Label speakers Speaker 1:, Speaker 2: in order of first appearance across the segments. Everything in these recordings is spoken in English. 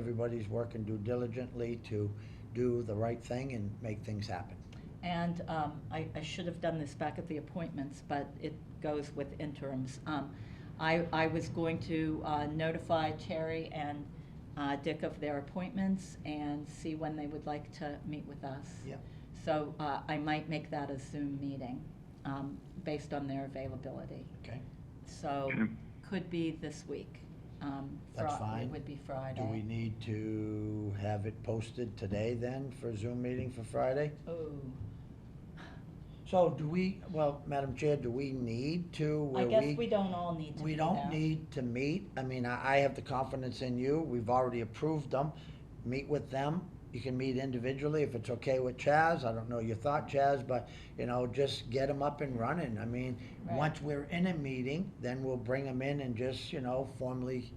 Speaker 1: everybody's working due diligently to do the right thing and make things happen.
Speaker 2: And um, I, I should have done this back at the appointments, but it goes with interims. Um, I, I was going to uh, notify Terry and uh, Dick of their appointments and see when they would like to meet with us.
Speaker 1: Yeah.
Speaker 2: So uh, I might make that a Zoom meeting, um, based on their availability.
Speaker 1: Okay?
Speaker 2: So
Speaker 3: Okay.
Speaker 2: could be this week. Um,
Speaker 1: That's
Speaker 2: Fri-
Speaker 1: fine.
Speaker 2: It would be
Speaker 1: Do we
Speaker 2: Friday.
Speaker 1: need to have it posted today then for Zoom meeting for Friday?
Speaker 2: Oh,
Speaker 1: So do we, well, Madam Chair, do we need to,
Speaker 2: I
Speaker 1: where
Speaker 2: guess we don't all need to
Speaker 1: We
Speaker 2: be
Speaker 1: don't
Speaker 2: there.
Speaker 1: need to meet, I mean, I, I have the confidence in you, we've already approved them, meet with them. You can meet individually if it's okay with Chaz, I don't know your thought, Chaz, but, you know, just get them up and running, I mean,
Speaker 2: Right.
Speaker 1: once we're in a meeting, then we'll bring them in and just, you know, formally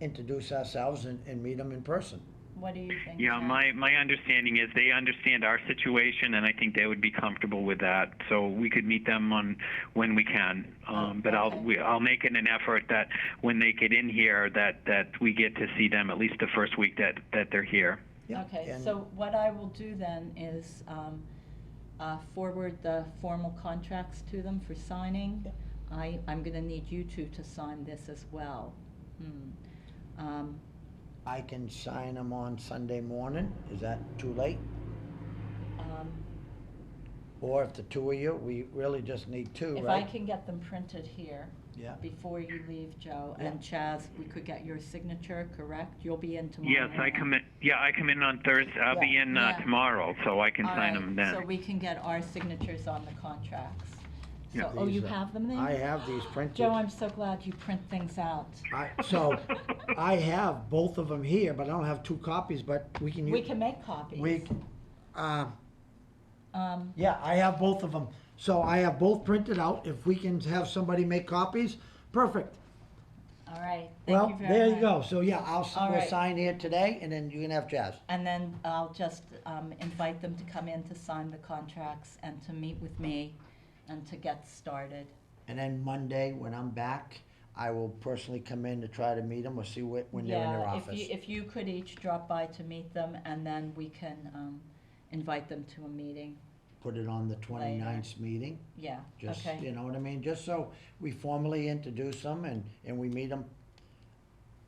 Speaker 1: introduce ourselves and, and meet them in person.
Speaker 2: What do you think?
Speaker 3: Yeah,
Speaker 2: Jen?
Speaker 3: my, my understanding is they understand our situation, and I think they would be comfortable with that. So we could meet them on when we can. Um, but
Speaker 2: Okay.
Speaker 3: I'll we, I'll make it an effort that when they get in here, that that we get to see them at least the first week that that they're here.
Speaker 1: Yeah,
Speaker 2: Okay,
Speaker 1: and-
Speaker 2: so what I will do then is um, uh, forward the formal contracts to them for signing.
Speaker 1: Yeah.
Speaker 2: I, I'm gonna need you two to sign this as well. Hmm. Um,
Speaker 1: I can sign them on Sunday morning, is that too late?
Speaker 2: um,
Speaker 1: Or if the two of you, we really just need two,
Speaker 2: If I
Speaker 1: right?
Speaker 2: can get them printed here
Speaker 1: Yeah,
Speaker 2: before you leave, Joe, and Chaz, we could get your signature, correct? You'll be in tomorrow.
Speaker 3: Yes, I
Speaker 2: morning.
Speaker 3: come in. Yeah, I come in on Thursday. I'll be
Speaker 1: Yeah.
Speaker 3: in uh,
Speaker 2: Yeah.
Speaker 3: tomorrow, so I can
Speaker 2: All right,
Speaker 3: sign them then.
Speaker 2: So we can get our signatures on the contracts. So,
Speaker 3: Yeah.
Speaker 2: oh, you
Speaker 1: These are-
Speaker 2: have them there?
Speaker 1: I have these printed.
Speaker 2: Joe, I'm so glad you print things out.
Speaker 1: I, so I have both of them here, but I don't have two copies, but we can.
Speaker 2: We
Speaker 1: u-
Speaker 2: can make copies.
Speaker 1: We, c- uh,
Speaker 2: Um,
Speaker 1: yeah, I have both of them. So I have both printed out. If we can have somebody make copies, perfect.
Speaker 2: all right, thank you
Speaker 1: Well,
Speaker 2: very much.
Speaker 1: there you go. So yeah, I'll, s-
Speaker 2: All
Speaker 1: we'll
Speaker 2: right.
Speaker 1: sign here today and then you can have Jazz.
Speaker 2: And then I'll just um, invite them to come in to sign the contracts and to meet with me and to get started.
Speaker 1: And then Monday, when I'm back, I will personally come in to try to meet them or see whe- when they're in their
Speaker 2: Yeah, if
Speaker 1: office.
Speaker 2: you, if you could each drop by to meet them, and then we can um, invite them to a meeting.
Speaker 1: Put it on the 29th meeting.
Speaker 2: Yeah,
Speaker 1: Just,
Speaker 2: okay,
Speaker 1: you know what I mean? Just so we formally introduce them and, and we meet them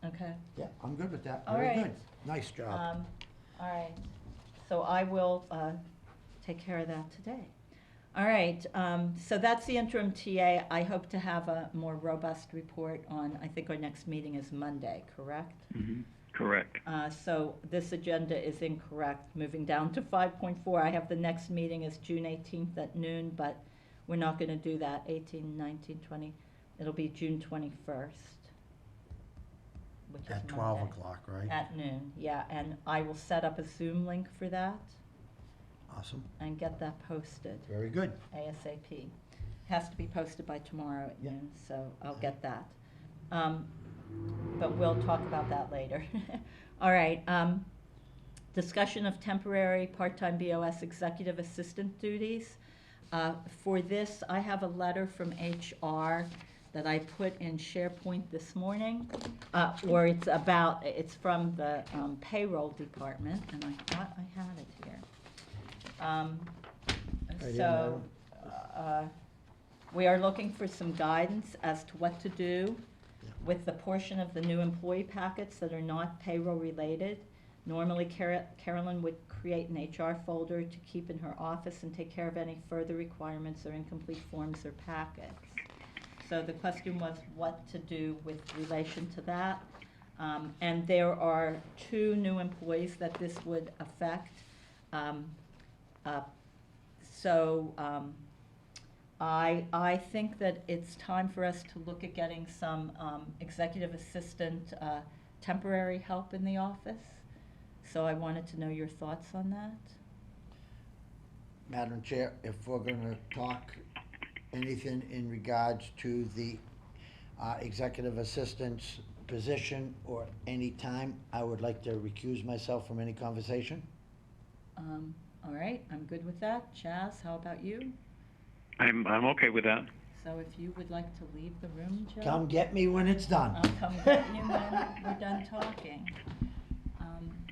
Speaker 2: okay.
Speaker 1: Yeah, I'm good with that.
Speaker 2: All
Speaker 1: Very
Speaker 2: right.
Speaker 1: good. Nice job.
Speaker 2: Um, All right, so I will uh, take care of that today. All right, um, so that's the interim TA. I hope to have a more robust report on, I think our next meeting is Monday, correct?
Speaker 3: Mhm. Correct.
Speaker 2: Uh, So this agenda is incorrect. Moving down to 5.4, I have the next meeting is June 18th at noon, but we're not going to do that, 18, 19, 20. It'll be June 21st, which is Monday.
Speaker 1: o'clock, right?
Speaker 2: At noon, yeah, and I will set up a Zoom link for that
Speaker 1: Awesome.
Speaker 2: and get that posted
Speaker 1: Very good.
Speaker 2: ASAP. Has to be posted by tomorrow at
Speaker 1: Yeah.
Speaker 2: noon, so I'll get that. Um, But we'll talk about that later. All right, um, discussion of temporary part-time BOS executive assistant duties. Uh, For this, I have a letter from HR that I put in SharePoint this morning, uh, or it's about, it's from the um, payroll department, and I thought I had it here. Um,
Speaker 1: here,
Speaker 2: So, uh, we are looking for some guidance as to what to do with the portion of the new employee packets that are not payroll-related. Normally Cara- Carolyn would create an HR folder to keep in her office and take care of any further requirements or incomplete forms or packets. So the question was what to do with relation to that. Um, And there are two new employees that this would affect. Um, uh, So um, I, I think that it's time for us to look at getting some um, executive assistant uh, temporary help in the office. So I wanted to know your thoughts on that.
Speaker 1: Madam Chair, if we're gonna talk anything in regards to the uh, executive assistant's position or any time, I would like to recuse myself from any conversation.
Speaker 2: Um, All right, I'm good with that. Chaz, how about you?
Speaker 3: I'm I'm okay with that.
Speaker 2: So if you would like to leave the room, Joe?
Speaker 1: Come get me when it's done.
Speaker 2: I'll come get you when we're done talking. Um,